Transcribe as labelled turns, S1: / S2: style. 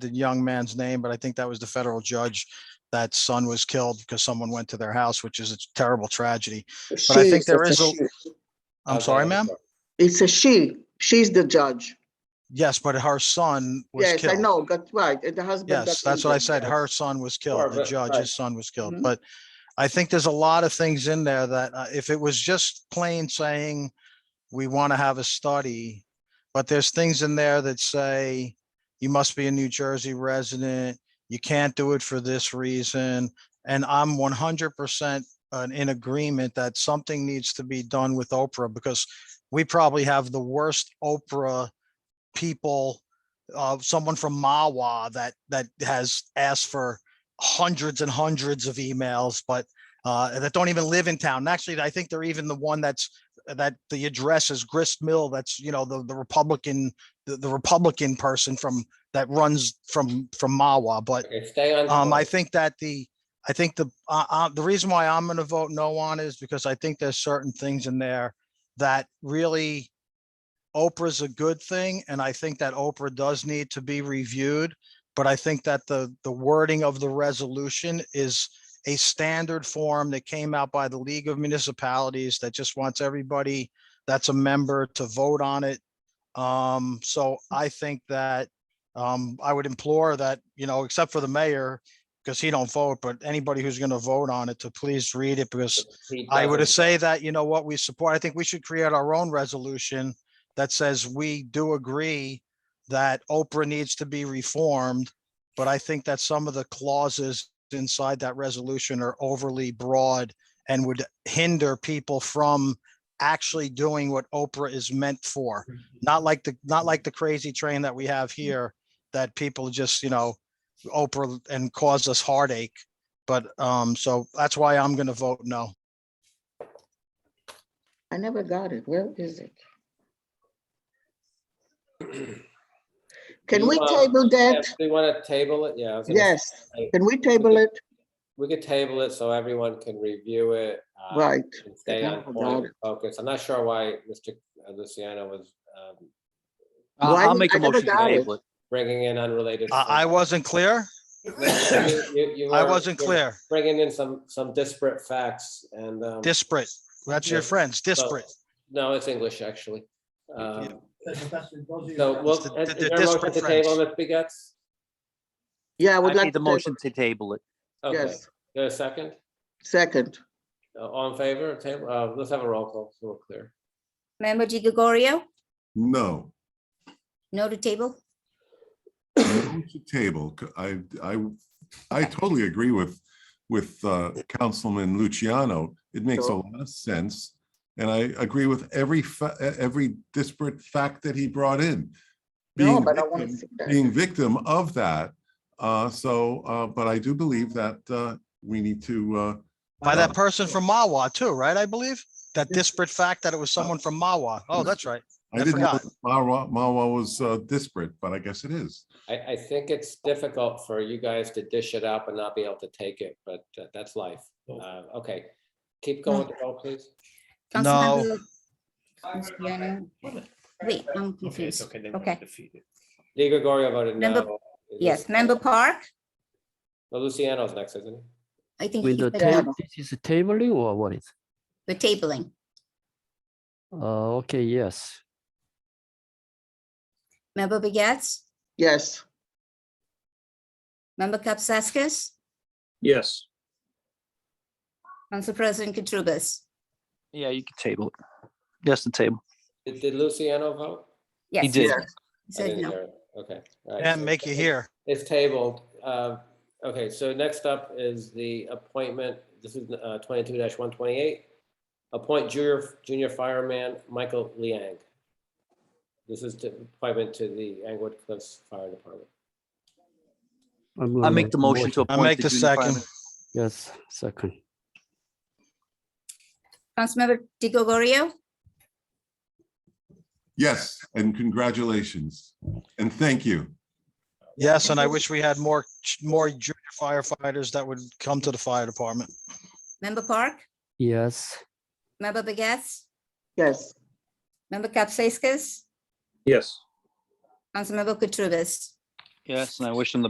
S1: the young man's name, but I think that was the federal judge. That son was killed because someone went to their house, which is a terrible tragedy. But I
S2: She
S1: think there
S2: that's
S1: is a-
S2: she.
S1: I'm sorry, ma'am.
S2: It's a she. She's the judge.
S1: Yes, but her son was
S2: Yes, I
S1: killed.
S2: know, that's right. And the husband.
S1: Yes,
S2: got
S1: that's what I
S2: injured.
S1: said. Her son was killed. The
S2: Right,
S1: judge,
S2: right.
S1: his son was killed.
S2: Mhm.
S1: But I think there's a lot of things in there that uh, if it was just plain saying, we want to have a study, but there's things in there that say, you must be a New Jersey resident, you can't do it for this reason. And I'm one hundred percent uh, in agreement that something needs to be done with Oprah because we probably have the worst Oprah people uh, someone from Mawa that that has asked for hundreds and hundreds of emails, but uh, that don't even live in town. And actually, I think they're even the one that's that the address is Grist Mill. That's you know the the Republican the, the Republican person from that runs from from Mawa, but
S3: Okay, stay on.
S1: um, I
S3: point.
S1: think that the, I think the, uh, uh, the reason why I'm gonna vote no on is because I think there's certain things in there that really Oprah's a good thing, and I think that Oprah does need to be reviewed. But I think that the, the wording of the resolution is a standard form that came out by the League of Municipalities that just wants everybody that's a member to vote on it. Um, so I think that um, I would implore that, you know, except for the mayor, because he don't vote, but anybody who's gonna vote on it to please read it, because
S3: He
S1: I would
S3: doesn't-
S1: say that, you know what, we support, I think we should create our own resolution that says we do agree that Oprah needs to be reformed, but I think that some of the clauses inside that resolution are overly broad and would hinder people from actually doing what Oprah is meant for. Not like the, not like the crazy train that we have here, that people just, you know, Oprah and cause us heartache. But, um, so that's why I'm gonna vote no.
S2: I never got it. Where is it? Can we
S3: Meanwhile,
S2: table
S3: uh, Yeah,
S2: that?
S3: We want to table it, yeah. I was gonna
S2: Yes,
S3: say,
S2: can we table it?
S3: We could table it so everyone can review it. uh,
S2: Right.
S3: and Stay
S2: Forgot
S3: on point,
S2: about
S3: and focus. I'm not sure why Mr. Luciano was um,
S4: I'll
S2: Why
S4: I'll
S2: did-
S4: make
S2: I
S4: a
S2: never
S4: motion to
S2: got it.
S4: table it.
S3: bringing in unrelated.
S1: I, I
S3: things.
S1: wasn't clear.
S3: You- you- you
S1: I
S3: were-
S1: wasn't
S3: you were
S1: clear.
S3: Bringing in some, some disparate facts and. um,
S1: Disparate. That's your
S3: Yeah.
S1: friends,
S3: so-
S1: disparate.
S3: No, it's English, actually. Um, So,
S5: So,
S3: well,
S1: the- the-
S3: is is
S1: the
S3: there a motion
S1: disparate
S3: to table,
S1: friends.
S3: Ms. Begets?
S2: Yeah, I
S4: I
S2: would like.
S4: made the
S2: to table-
S4: motion to table it.
S3: Okay, is
S2: Yes,
S3: there a second?
S2: second.
S3: Uh, All in favor, of table, uh, let's have a roll call, so we're clear.
S6: Member Di Gregorio,
S7: No,
S6: no to table?
S7: no to table. C- I, I, I totally agree with, with uh, Councilman Luciano. It makes a
S2: Sure.
S7: lot of sense. And I agree with every, fa- e- every disparate fact that he brought in.
S2: No,
S7: being
S2: but I want to
S7: victim-
S2: see that.
S7: Being victim of that. Uh, So, uh, but I do believe that uh, we need to, uh,
S1: By that person from Mawa too, right? I believe that disparate fact that it was someone from Mawa. Oh, that's right. I
S7: I didn't know
S1: forgot.
S7: that Mawa, Mawa was uh, disparate, but I guess it is.
S3: I, I think it's difficult for you guys to dish it up and not be able to take it, but uh, that's life. Uh, okay, keep going, with the roll, please.
S6: Councilmember Luciano. Wait, I'm confused. Okay,
S3: Di Gregorio voted
S6: Member-
S3: no. Is
S6: yes,
S3: this-
S6: member Park,
S3: Well, Luciano's next, isn't he?
S6: I think
S4: With
S6: he's
S4: the
S6: the
S2: Yeah.
S4: table, this is a tabling or what is?
S6: the tabling.
S4: Uh, okay, yes.
S6: Member Begets,
S2: Yes,
S6: member Capzaskis,
S5: Yes.
S6: Council President Katurbis.
S4: Yeah, you can table it. Yes, the table.
S3: Did- Did Luciano vote?
S6: Yes.
S4: did.
S6: said-
S2: Yes.
S6: he
S3: I
S6: Said
S3: didn't
S6: no.
S3: hear it. Okay. all right,
S1: And
S3: so
S1: make you
S3: it's-
S1: hear.
S3: It's tabled. Uh, Okay, so next up is the appointment, this is uh, twenty-two one twenty-eight. Appoint junior, junior fireman Michael Liang. This is the appointment to the Angwood Cliffs Fire Department.
S4: I make the motion to
S1: I
S4: appoint.
S1: make the
S4: junior
S1: second.
S4: fireman. Yes, second.
S6: Councilmember Di Gregorio,
S7: Yes, and congratulations. And thank you.
S1: Yes, and I wish we had more, more junior firefighters that would come to the fire department.
S6: member Park,
S4: Yes,
S6: member Begets,
S2: yes,
S6: member Capzaskis,
S5: Yes.
S6: Councilmember Katurbis.
S5: Yes, and I wish him the